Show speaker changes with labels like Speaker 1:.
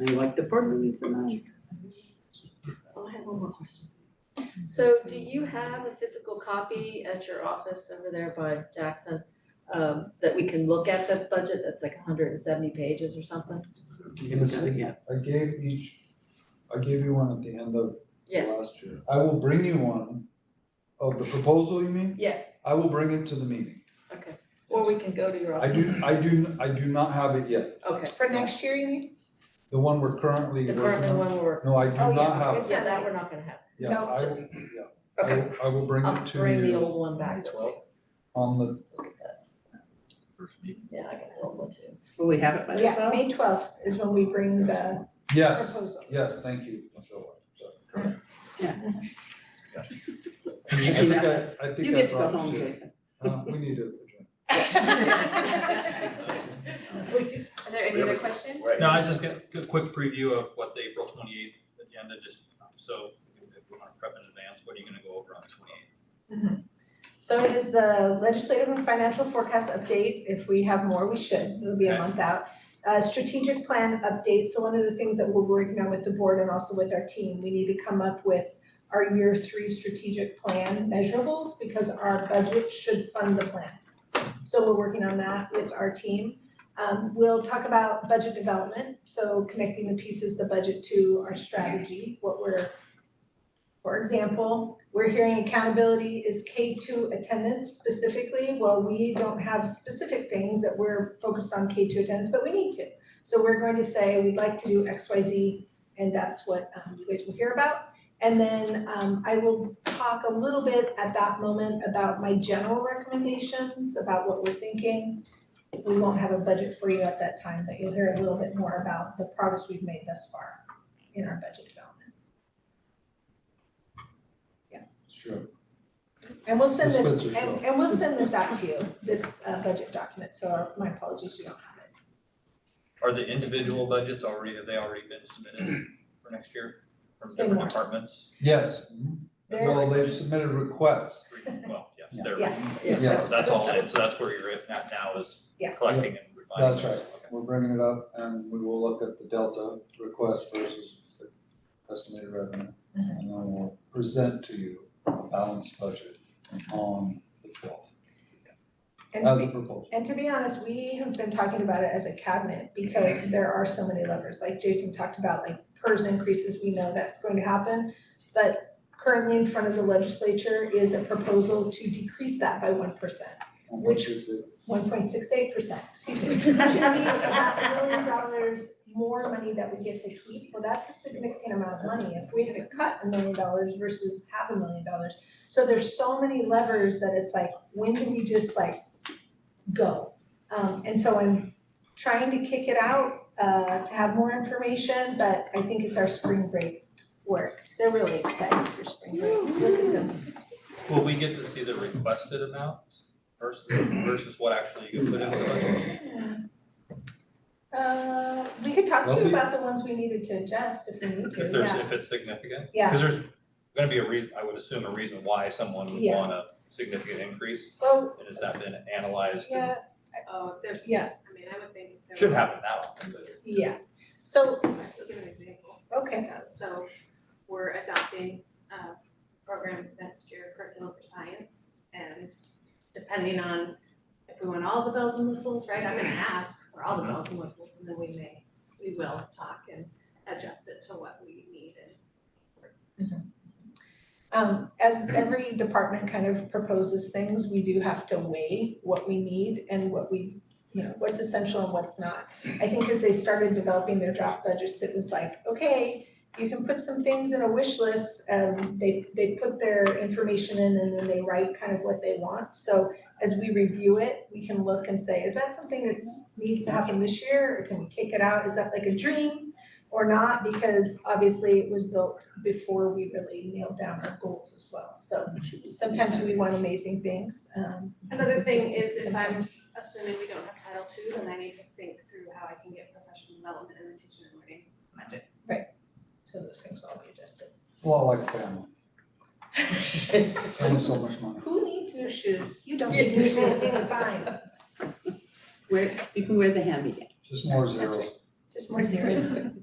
Speaker 1: I like the partner needs the magic.
Speaker 2: Oh, I have one more question. So do you have a physical copy at your office over there by Jackson? Um, that we can look at the budget that's like hundred and seventy pages or something?
Speaker 1: Give us a- yeah.
Speaker 3: I gave each, I gave you one at the end of
Speaker 2: Yes,
Speaker 3: last year. I will bring you one, of the proposal, you mean?
Speaker 2: yeah,
Speaker 3: I will bring it to the meeting.
Speaker 2: okay. Or we can go to your
Speaker 3: I
Speaker 2: office.
Speaker 3: do, I do, I do not have it yet,
Speaker 2: Okay,
Speaker 4: For next year, you mean?
Speaker 3: the one we're currently
Speaker 2: the
Speaker 3: working on.
Speaker 2: current one we're,
Speaker 3: No, I do
Speaker 4: Oh, yeah,
Speaker 3: not have
Speaker 4: because-
Speaker 3: it,
Speaker 2: yeah, that we're not gonna have.
Speaker 3: yeah,
Speaker 4: No,
Speaker 3: I, will-
Speaker 4: just-
Speaker 3: yeah, Uh, I
Speaker 2: Okay,
Speaker 3: will, I will bring
Speaker 2: I'll
Speaker 3: it to
Speaker 2: bring the
Speaker 3: you
Speaker 2: old one back.
Speaker 3: on the,
Speaker 5: first meeting.
Speaker 2: Yeah, I got an old one too.
Speaker 1: Will we have it by the
Speaker 4: Yeah,
Speaker 1: twelfth?
Speaker 4: May twelfth is when we bring the
Speaker 3: yes,
Speaker 4: proposal.
Speaker 3: yes, thank you, Mr. White, so.
Speaker 1: Yeah.
Speaker 3: I think I, I
Speaker 1: You
Speaker 3: think I
Speaker 1: get to go
Speaker 3: brought
Speaker 1: home,
Speaker 3: shit.
Speaker 1: Jason.
Speaker 3: Uh, we need to adjourn.
Speaker 4: Are there any other questions?
Speaker 5: No, I was just gonna, a quick preview of what the April twenty-eighth agenda, just um, so if we wanna prep in advance, what are you gonna go over on the twenty-eighth?
Speaker 4: So it is the legislative and financial forecast update. If we have more, we should. It'll be a
Speaker 5: Okay.
Speaker 4: month out. Uh, strategic plan update. So one of the things that we're working on with the board and also with our team, we need to come up with our year three strategic plan measurables because our budget should fund the plan. So we're working on that with our team. Um, we'll talk about budget development, so connecting the pieces, the budget to our strategy, what we're, for example, we're hearing accountability is K two attendance specifically, well, we don't have specific things that we're focused on K two attendance, but we need to. So we're going to say, we'd like to do X, Y, Z, and that's what, um, you guys will hear about. And then um I will talk a little bit at that moment about my general recommendations, about what we're thinking. We won't have a budget for you at that time, but you'll hear a little bit more about the progress we've made thus far in our budget development.
Speaker 3: Sure.
Speaker 4: And we'll send
Speaker 3: This
Speaker 4: this,
Speaker 3: budget,
Speaker 4: and and we'll send this out to you, this uh budget document, so my apologies, you don't have it.
Speaker 5: Are the individual budgets already, have they already been submitted for next year from different
Speaker 4: Similar.
Speaker 5: departments?
Speaker 3: Yes, mhm.
Speaker 4: There-
Speaker 3: well, they've submitted requests,
Speaker 5: Well, yes,
Speaker 3: Yeah.
Speaker 5: they're,
Speaker 2: Yeah.
Speaker 3: Yeah.
Speaker 5: that's all, in. so that's where you're at now- now is
Speaker 4: Yeah.
Speaker 5: collecting and refining.
Speaker 3: That's
Speaker 5: those.
Speaker 3: right.
Speaker 5: Okay.
Speaker 3: We're bringing it up and we will look at the delta request versus the estimated revenue.
Speaker 4: Mhm.
Speaker 3: And then we'll present to you a balanced budget on the twelfth
Speaker 4: And
Speaker 3: as
Speaker 4: we-
Speaker 3: a proposal.
Speaker 4: And to be honest, we have been talking about it as a cabinet because there are so many levers, like Jason talked about, like PERS increases, we know that's going to happen. But currently in front of the legislature is a proposal to decrease that by one percent,
Speaker 3: On
Speaker 4: Which-
Speaker 3: which is it-
Speaker 4: one point six eight percent, excuse me. Which would mean about a million dollars more money that we get to keep, well, that's a significant amount of money, if we had to cut a million dollars versus half a million dollars. So there's so many levers that it's like, when do we just like go. Um, and so I'm trying to kick it out, uh, to have more information, but I think it's our spring break work. They're really excited for spring break. Look at them.
Speaker 5: Will we get to see the requested amount versus, versus what actually you put in the budget?
Speaker 4: Uh, we could talk to
Speaker 3: Lovely.
Speaker 4: you about the ones we needed to adjust if we need
Speaker 5: If
Speaker 4: to,
Speaker 5: there's,
Speaker 4: yeah,
Speaker 5: if it's significant?
Speaker 4: yeah.
Speaker 5: Because there's gonna be a reason, I would assume a reason why someone would
Speaker 4: Yeah.
Speaker 5: want a significant increase,
Speaker 4: Well,
Speaker 5: and has that been analyzed? and-
Speaker 4: yeah,
Speaker 6: Oh, there's,
Speaker 4: yeah,
Speaker 6: I mean, I would think if there
Speaker 5: Should
Speaker 6: was-
Speaker 5: happen now, but
Speaker 4: yeah. So,
Speaker 6: I'll Give an example.
Speaker 4: okay,
Speaker 6: Uh, So we're adopting a program next year, curriculum for science. And depending on if we want all the bells and whistles, right, I'm gonna ask for all the bells and whistles and then we may, we will talk and adjust it to what we need and
Speaker 4: um, as every department kind of proposes things, we do have to weigh what we need and what we, you know, what's essential and what's not. I think as they started developing their draft budgets, it was like, okay, you can put some things in a wish list. Um, they, they put their information in and then they write kind of what they want. So as we review it, we can look and say, is that something that's needs to happen this year? Or can we kick it out? Is that like a dream or not? Because obviously it was built before we really nailed down our goals as well. So sometimes we want amazing things, um.
Speaker 6: Another thing is if I'm
Speaker 4: sometimes-
Speaker 6: assuming we don't have Title II, then I need to think through how I can get professional development in the teaching and learning budget.
Speaker 4: So those things all be adjusted.
Speaker 3: A lot like family, family so much money.
Speaker 4: Who needs new shoes? You don't need new shoes, you're fine.
Speaker 1: Where, you can wear the hand-me-down.
Speaker 3: Just more
Speaker 4: That's
Speaker 3: zeros.
Speaker 4: right. Just more serious.